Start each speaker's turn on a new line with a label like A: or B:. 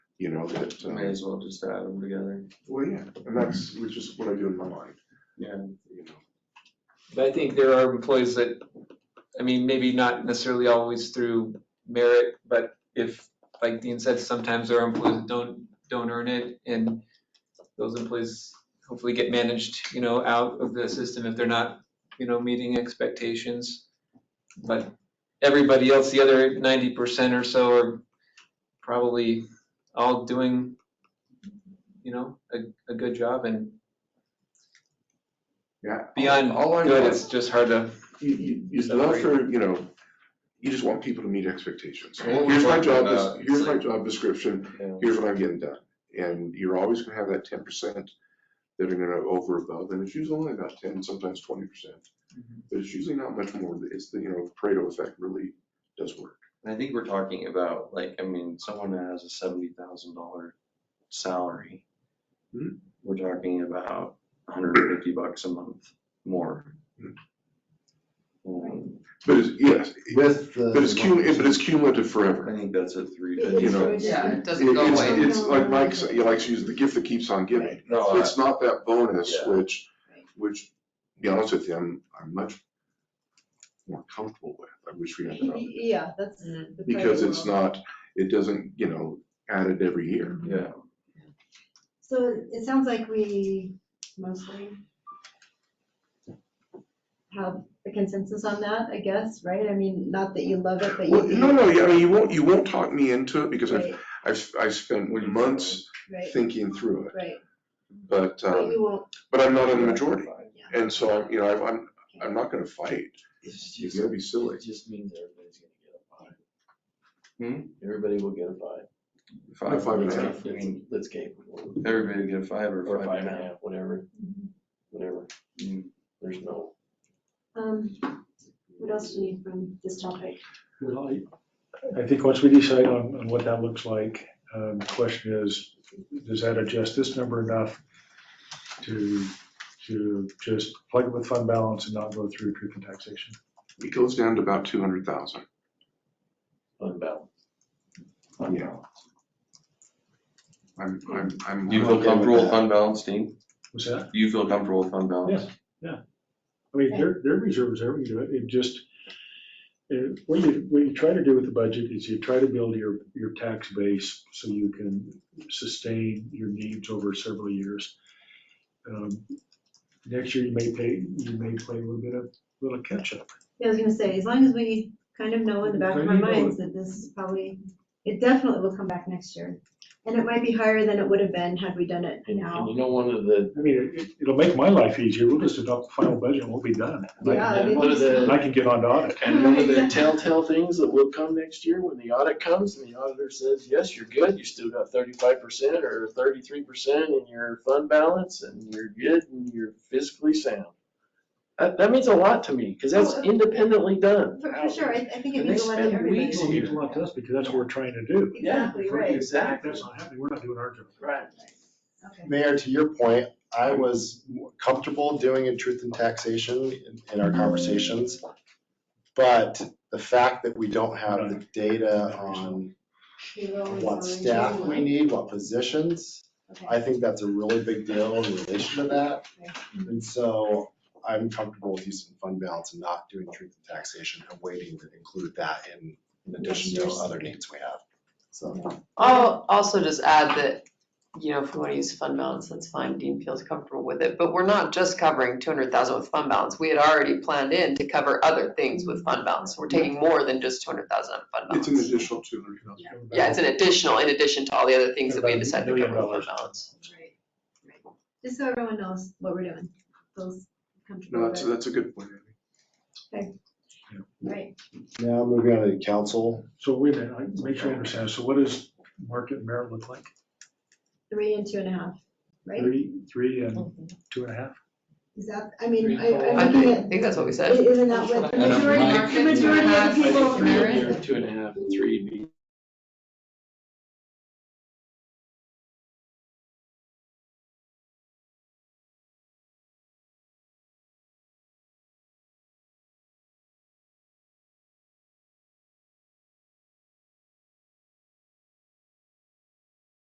A: you know, that,
B: May
A: um,
B: as well just add them together.
A: well, yeah, and that's, which is what I do in my mind.
B: Yeah.
A: You know,
C: But I think there are employees that, I mean, maybe not necessarily always through merit, but if, like Dean said, sometimes there are employees that don't, don't earn it, and those employees hopefully get managed, you know, out of the system if they're not, you know, meeting expectations. But everybody else, the other ninety percent or so are probably all doing, you know, a, a good job, and
A: yeah. all-
C: beyond
A: all I
C: good,
A: want-
C: it's just hard to
A: you, you, it's not for, you know, you just want people to meet expectations.
B: Well, what we
A: Here's my
B: talked
A: job,
B: about,
A: des- here's
B: it's
A: my
B: like-
A: job description,
B: Yeah.
A: here's what I'm getting done. And you're always gonna have that ten percent that are gonna over above, and it's usually only about ten, sometimes twenty percent.
B: Mm-hmm.
C: Mhm.
A: But it's usually not much more, it's the, you know, the Pareto effect really does work.
B: And I think we're talking about, like, I mean, someone that has a seventy thousand dollar salary.
A: Hmm.
B: We're talking about hundred and fifty bucks a month more.
A: Hmm.
B: Um,
A: But it's, yes,
D: With the.
A: but it's cum, but it's cumulative
B: I
A: forever.
B: think that's a three.
A: Yeah, you know,
E: Yeah, it doesn't
A: It-
E: go
A: it's-
E: away.
A: It's like Mike, said, you like to use the gift that keeps on giving.
B: No, I-
A: It's not that bonus,
B: Yeah.
A: which,
E: Right.
A: which, to be honest with you, I'm, I'm much more comfortable with. I wish we had that,
F: Yeah, that's.
E: Mm.
F: the
A: because
F: priority
A: it's
F: level.
A: not, it doesn't, you know, added every year.
B: yeah,
F: So it sounds like we mostly have a consensus on that, I guess, right? I mean, not that you love it, but you.
A: Well, no, no, yeah, I mean, you won't, you won't talk me into it because I've,
F: Right,
A: I've, I've spent
B: What do you-
A: months
F: right,
A: thinking through it,
F: right.
A: but,
F: But
A: um,
F: you won't,
A: but I'm not in the majority. And so, I'm you know, I'm- I'm, I'm not gonna fight.
G: It's
A: It's
G: just,
A: gonna be silly.
G: it just means everybody's gonna get a five.
B: Hmm?
G: Everybody will get a five.
B: five,
A: Five and a
G: That's-
A: half.
B: I mean,
G: That's capable,
B: everybody get a five or
G: or
B: five and a half.
G: half, whatever, whatever,
B: Mm.
G: there's no.
F: um, what else do you need from this topic?
H: Well, I- I think once we decide on, on what that looks like, um, the question is, does that adjust this number enough to, to just plug it with fund balance and not go through truth and taxation?
A: It goes down to about two hundred thousand.
G: unbalanced.
A: Yeah. I'm, I'm, I'm.
B: Do you feel
A: okay with
B: comfortable
A: that.
B: with fund balance, Dean?
H: What's that?
B: Do you feel comfortable with fund balance?
H: I mean, their, their reserves, there we do it, it just, uh, what you, what you try to do with the budget is you try to build your, your tax base so you can sustain your needs over several years. Um, Next year, you may pay, you may play a little bit of, little catch-up.
F: Yeah, I was gonna say, as long as we kind of know in the back of our
H: Maybe not.
F: minds that this is probably, it definitely will come back next year. And it might be higher than it would have been had we done it
G: And
F: now.
G: and you know, one of the,
H: I mean, it, it'll make my life easier, we'll just adopt the final budget and we'll be done. And I-
F: Yeah, I
G: and
F: mean,
G: one of the.
H: And I can get on to audit.
G: And one of the telltale things that will come next year, when the audit comes and the auditor says, yes, you're good, you still got thirty-five percent or thirty-three percent in your fund balance and you're good and you're physically sound. That, that means a lot to me, because that's
F: Oh, uh,
G: independently done.
F: For, for sure, I, I think it
G: And
F: means a
G: they
F: lot to
G: spend
F: everybody.
G: weeks
H: It means a lot to us because that's what we're trying to do.
G: Yeah,
F: Exactly,
H: If we're-
F: right,
H: If
G: Exactly.
H: that's not happening, we're not doing our job.
G: Right.
F: okay.
D: Mayor, to your point, I was comfortable doing a truth in taxation in, in our conversations. But the fact that we don't have the data on
F: We will always
D: what
F: arrange
D: staff
F: it.
D: we need, what positions,
F: Okay.
D: I think that's a really big deal in relation to that. And so I'm comfortable with using fund balance and not doing truth in taxation and waiting to include that in, in addition to other needs we have. So.
E: I'll also just add that, you know, if we want to use fund balance, that's fine, Dean feels comfortable with it, but we're not just covering two hundred thousand with fund balance. We had already planned in to cover other things with fund balance, so we're taking more than just two hundred thousand out of fund
A: It's an
E: balance.
A: additional two hundred thousand.
E: Yeah, it's an additional, in addition to all the other things that we
H: About a
E: decided to
H: million
E: cover with fund
H: dollars.
E: balance.
F: Right, right. Just so everyone knows what we're doing, feels comfortable
A: No, that's,
F: with it,
A: that's a good point. Andy.
F: right?
D: Now moving on to council.
H: So wait a minute, I make sure I understand. So what does market merit look like?
F: Three and two and a half, right?
H: Three, three and two and a half?
F: Is that, I mean,
G: Three,
F: I,
G: four.
F: I'm
E: I
F: looking
E: think, I
F: at,
E: think that's what we
F: i-
E: said.
F: isn't that what the
B: I don't
F: majority,
B: mind.
E: Two and
F: the majority
E: a
F: of
E: half,
F: the
G: I
F: people?
G: think
E: Merit.
G: three, two and a half, and three would be